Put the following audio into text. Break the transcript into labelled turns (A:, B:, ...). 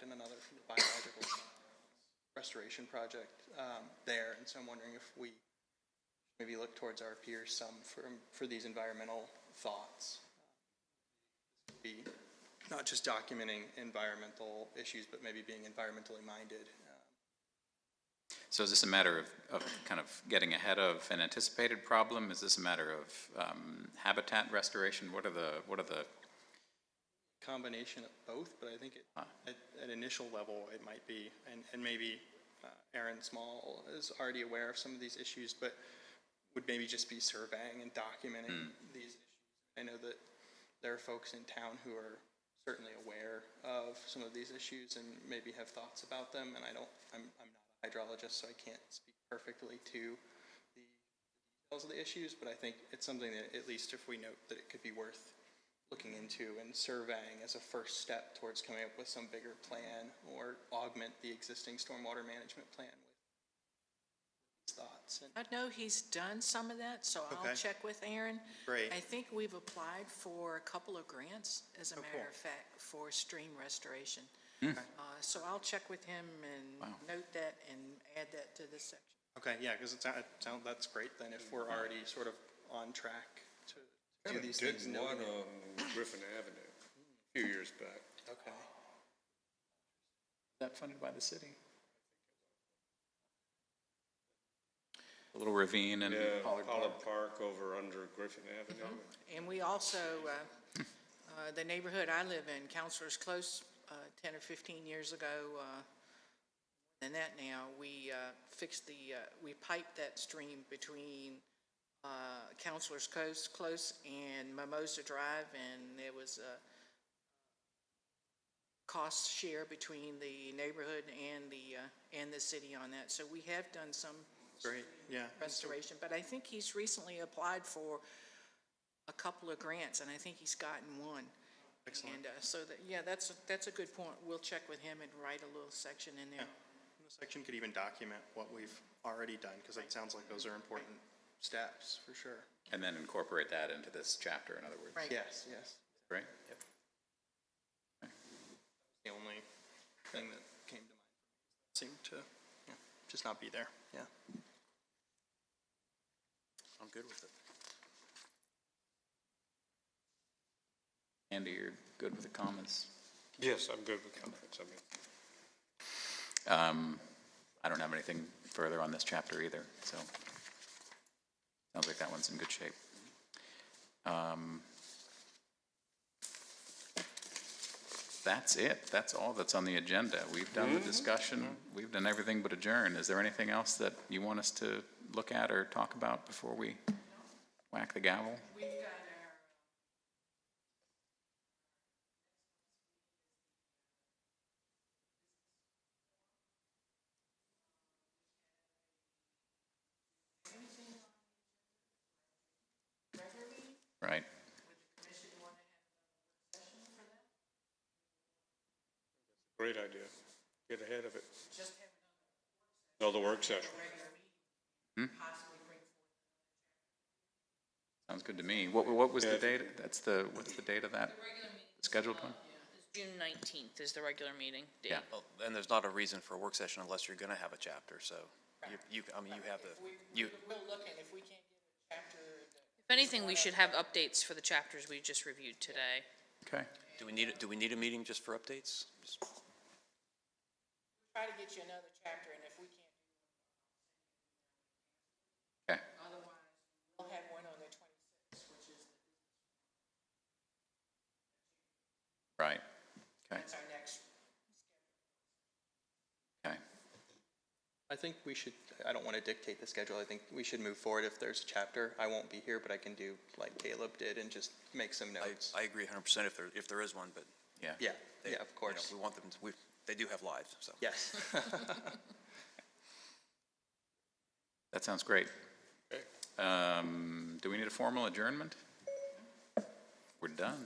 A: restoration project um, there, and so I'm wondering if we maybe look towards our peers some for, for these environmental thoughts. Be not just documenting environmental issues, but maybe being environmentally minded.
B: So is this a matter of, of kind of getting ahead of an anticipated problem? Is this a matter of um, habitat restoration? What are the, what are the,
A: Combination of both, but I think it-
B: Huh.
A: at, at initial level, it might be, and, and maybe uh, Aaron Small is already aware of some of these issues, but would maybe just be surveying and documenting these issues. I know that there are folks in town who are certainly aware of some of these issues and maybe have thoughts about them, and I don't, I'm, I'm not a hydrologist, so I can't speak perfectly to the details of the issues, but I think it's something that, at least if we note, that it could be worth looking into and surveying as a first step towards coming up with some bigger plan or augment the existing stormwater management plan with these thoughts. And
C: I know he's done some of that, so I'll
D: Okay.
C: check with Aaron.
D: Great.
C: I think we've applied for a couple of grants, as a
D: Oh,
C: matter
D: cool.
C: of fact, for stream restoration. Uh, So I'll check with him and note that and add that to this section.
A: Okay, yeah, because it sounds, that's great then if we're already sort of on track to do
E: Kinda
A: these
E: did
A: things.
E: one
A: knowing it.
E: on Griffin Avenue a few years back.
A: Okay.
B: that funded by the city? A little ravine and
E: Yeah,
B: Pollard Park.
E: Pollard Park over under Griffin Avenue.
D: Mm-hmm.
C: And we also, uh, uh, the neighborhood I live in, Counselor's Close, uh, 10 or 15 years ago, uh, than that now, we uh, fixed the, uh, we piped that stream between uh, Counselor's Coast Close and Mimosa Drive, and there was a cost share between the neighborhood and the, uh, and the city on that. So we have done some
A: Great, yeah.
C: restoration, but I think he's recently applied for a couple of grants, and I think he's gotten one.
A: Excellent.
C: And uh, so that, yeah, that's, that's a good point. We'll check with him and write a little section in there.
A: And The section could even document what we've already done, because it sounds like those are important steps, for sure.
B: And then incorporate that into this chapter, in other words,
C: Right.
A: Yes, yes.
B: right?
A: The only thing that came to mind seemed to yeah, just not be there, yeah.
D: I'm good with it.
B: Andy, you're good with the comments?
E: Yes, I'm good with comments. I mean,
B: Um, I don't have anything further on this chapter either, so. Sounds like that one's in good shape. Um, That's it. That's all that's on the agenda. We've done the discussion. We've done everything but adjourn. Is there anything else that you want us to look at or talk about before we whack the gavel?
C: We've got our.
B: Right.
E: great idea. Get ahead of it. Another work session.
B: Sounds good to me. What, what was the
E: Yeah.
B: date? That's the, what's the date of that scheduled one?
F: June nineteenth is the regular meeting date.
B: Yeah.
G: Well, And there's not a reason for a work session unless you're going to have a chapter, so you, you, I mean, you have the, you,
C: We'll look at if we can't get a chapter. uh,
F: If anything, we should have updates for the chapters we just reviewed today.
B: Okay.
G: do we need, do we need a meeting just for updates? Just-
C: Try to get you another chapter, and if we can't,
B: Okay.
C: otherwise, we'll have one on the twenty-sixth, which is,
B: Right. Okay.
C: that's our next.
B: Okay.
A: I think we should, I don't want to dictate the schedule, I think we should move forward if there's a chapter. I won't be here, but I can do like Caleb did and just make some
G: I,
A: notes.
G: I agree hundred percent if there, if there is one, but.
B: Yeah.
A: Yeah,
G: they-
A: yeah, of
G: you know,
A: course,
G: We want them, to- we, they do have lives, so.
A: yes.
B: That sounds great.
E: Okay.
B: Um, do we need a formal adjournment? We're done.